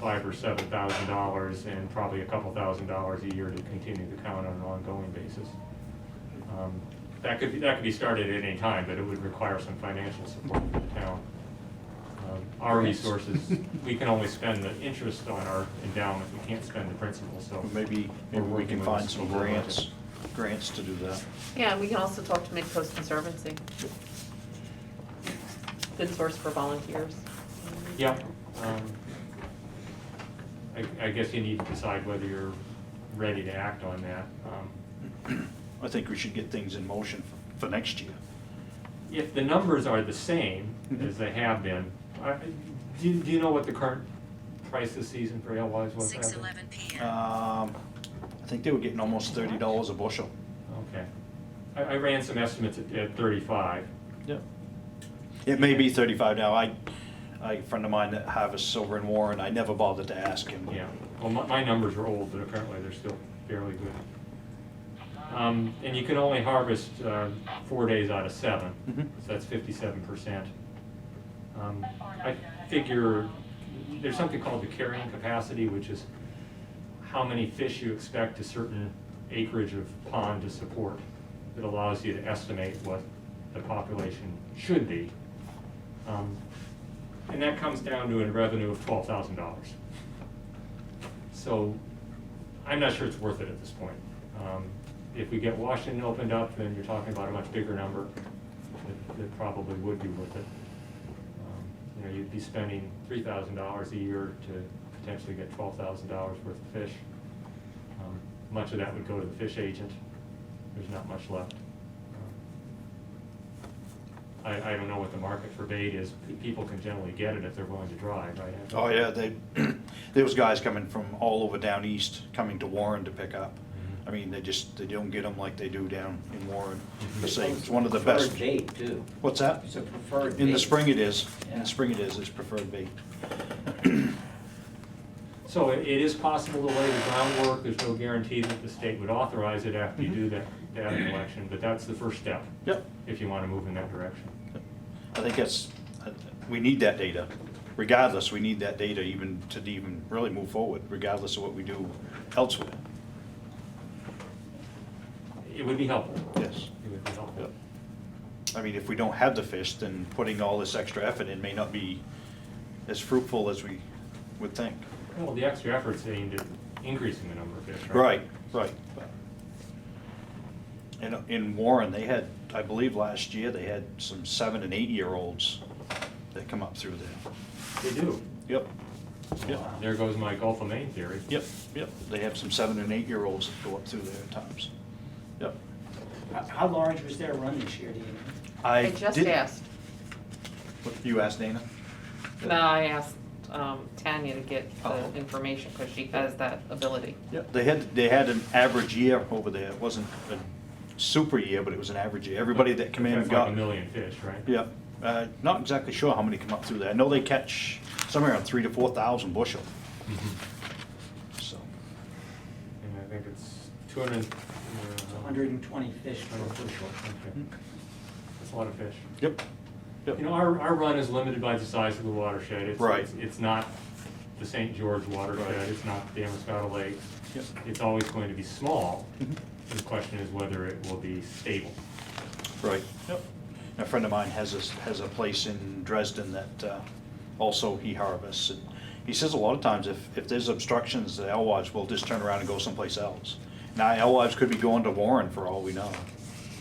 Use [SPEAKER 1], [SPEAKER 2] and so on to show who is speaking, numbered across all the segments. [SPEAKER 1] five or seven thousand dollars and probably a couple thousand dollars a year to continue the count on an ongoing basis. Um, That could, be that could be started at any time, but it would require some financial support from the town. Um, Our resources, we can only spend the interest on our endowment, we can't spend the principal, so.
[SPEAKER 2] Maybe,
[SPEAKER 1] we're
[SPEAKER 2] maybe we
[SPEAKER 1] working
[SPEAKER 2] can
[SPEAKER 1] with
[SPEAKER 2] find
[SPEAKER 1] the
[SPEAKER 2] some
[SPEAKER 1] school budget.
[SPEAKER 2] grants, grants to do that.
[SPEAKER 3] Yeah, and we can also talk to Midcoast Conservancy. Good source for volunteers.
[SPEAKER 1] Yeah. um, I, I guess you need to decide whether you're ready to act on that. Um,
[SPEAKER 2] I think we should get things in motion for- for next year.
[SPEAKER 1] If the numbers are the same as they have been, I- do, you- do you know what the current price this season for ale wise was?
[SPEAKER 4] Six
[SPEAKER 1] Evan?
[SPEAKER 4] eleven PM.
[SPEAKER 2] Um, I think they were getting almost thirty dollars a bushel.
[SPEAKER 1] Okay. I, I ran some estimates at, at thirty-five.
[SPEAKER 2] Yeah. It may be thirty-five now. I, I, a friend of mine that harvests silver in Warren, I never bothered to ask him.
[SPEAKER 1] Yeah, well, my, my numbers are old, but apparently they're still fairly good. Um, and you can only harvest, uh, four days out of seven,
[SPEAKER 2] Mhm.
[SPEAKER 1] so that's fifty-seven percent. Um, I figure, there's something called the carrying capacity, which is how many fish you expect a certain acreage of pond to support. It allows you to estimate what the population should be. Um, And that comes down to a revenue of twelve thousand dollars. So I'm not sure it's worth it at this point. Um, If we get Washington opened up, then you're talking about a much bigger number that- that probably would be worth it. Um, You know, you'd be spending three thousand dollars a year to potentially get twelve thousand dollars worth of fish. Um, Much of that would go to the fish agent. There's not much left. Um, I, I don't know what the market for bait is. Pe- People can generally get it if they're willing to drive, right? Evan?
[SPEAKER 2] Oh, yeah, they, there was guys coming from all over down east, coming to Warren to pick up.
[SPEAKER 1] Mhm.
[SPEAKER 2] I mean, they just, they don't get them like they do down in Warren.
[SPEAKER 5] Mm-hmm.
[SPEAKER 1] Mhm.
[SPEAKER 2] The same, it's one of the best.
[SPEAKER 5] Preferred date, too.
[SPEAKER 2] What's that?
[SPEAKER 5] It's a preferred
[SPEAKER 2] In the
[SPEAKER 5] date.
[SPEAKER 2] spring it is, in
[SPEAKER 5] Yeah.
[SPEAKER 2] the spring it is, it's preferred bait.
[SPEAKER 1] So it it is possible to lay the groundwork, there's no guarantee that the state would authorize it after you do that, that election, but that's the first step.
[SPEAKER 2] Mm-hmm. Yep.
[SPEAKER 1] If you wanna move in that direction.
[SPEAKER 2] I think that's, we need that data. Regardless, we need that data even to even really move forward, regardless of what we do elsewhere.
[SPEAKER 1] It would be helpful.
[SPEAKER 2] Yes.
[SPEAKER 1] It would be helpful.
[SPEAKER 2] Yep. I mean, if we don't have the fish, then putting all this extra effort in may not be as fruitful as we would think.
[SPEAKER 1] Well, the extra effort's aimed at increasing the number of fish, right?
[SPEAKER 2] Right, right. And in Warren, they had, I believe last year, they had some seven and eight-year-olds that come up through there.
[SPEAKER 1] They do.
[SPEAKER 2] Yep, yep,
[SPEAKER 1] There goes my Gulf of Maine theory.
[SPEAKER 2] yep, yep. They have some seven and eight-year-olds that go up through there at times. Yep.
[SPEAKER 5] How- How large was their run this year, do you know?
[SPEAKER 3] I just
[SPEAKER 2] did-
[SPEAKER 3] asked,
[SPEAKER 2] What, You asked Dana?
[SPEAKER 3] no, I asked um, Tanya to get
[SPEAKER 2] Oh.
[SPEAKER 3] the information because she has that ability.
[SPEAKER 2] Yep, they had, they had an average year over there. It wasn't a super year, but it was an average year. Everybody that came in
[SPEAKER 1] That's
[SPEAKER 2] got.
[SPEAKER 1] like a million fish, right?
[SPEAKER 2] Yep, Uh, not exactly sure how many come up through there. I know they catch somewhere around three to four thousand bushel,
[SPEAKER 1] Mhm.
[SPEAKER 2] so.
[SPEAKER 1] And I think it's two hundred. uh,
[SPEAKER 5] It's 120 fish per bushel.
[SPEAKER 2] Mm-hmm.
[SPEAKER 1] That's a lot of fish.
[SPEAKER 2] Yep, yep.
[SPEAKER 1] Mm-hmm. You know, our, our run is limited by the size of the watershed. It's-
[SPEAKER 2] Right.
[SPEAKER 1] It's, it's not the St. George watershed,
[SPEAKER 2] Right.
[SPEAKER 1] it's not the Amescada Lake.
[SPEAKER 2] Yep.
[SPEAKER 1] It's always going to be small.
[SPEAKER 2] Mhm.
[SPEAKER 1] The question is whether it will be stable.
[SPEAKER 2] Right. Yep. A friend of mine has a, has a place in Dresden that uh, also he harvests. and He says a lot of times if, if there's obstructions, the alewives will just turn around and go someplace else. Now, alewives could be going to Warren for all we know.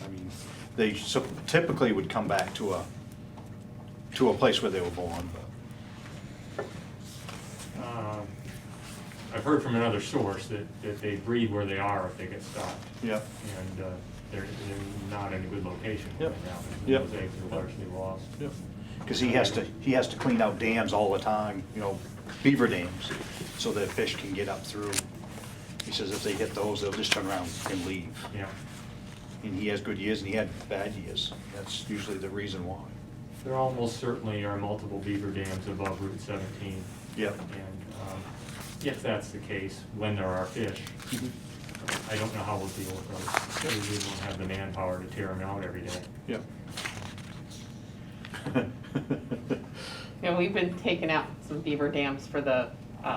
[SPEAKER 2] I mean, they sup- typically would come back to a, to a place where they were born, but,
[SPEAKER 1] Um, I've heard from another source that, that they breed where they are if they get stopped.
[SPEAKER 2] yep.
[SPEAKER 1] And uh, they're, they're not in a good location right
[SPEAKER 2] Yep.
[SPEAKER 1] now.
[SPEAKER 2] Yep.
[SPEAKER 1] Those eggs are largely lost.
[SPEAKER 2] Because he has to, he has to clean out dams all the time, you know, beaver dams, so that fish can get up through. He says if they hit those, they'll just turn around and leave.
[SPEAKER 1] Yeah.
[SPEAKER 2] And he has good years and he had bad years. That's usually the reason why.
[SPEAKER 1] There almost certainly are multiple beaver dams above Route 17.
[SPEAKER 2] Yep.
[SPEAKER 1] And um, if that's the case, when there are fish, I don't know how we'll deal with those. We really don't have the manpower to tear them out every day.
[SPEAKER 2] Yep.
[SPEAKER 3] And we've been taking out some beaver dams for the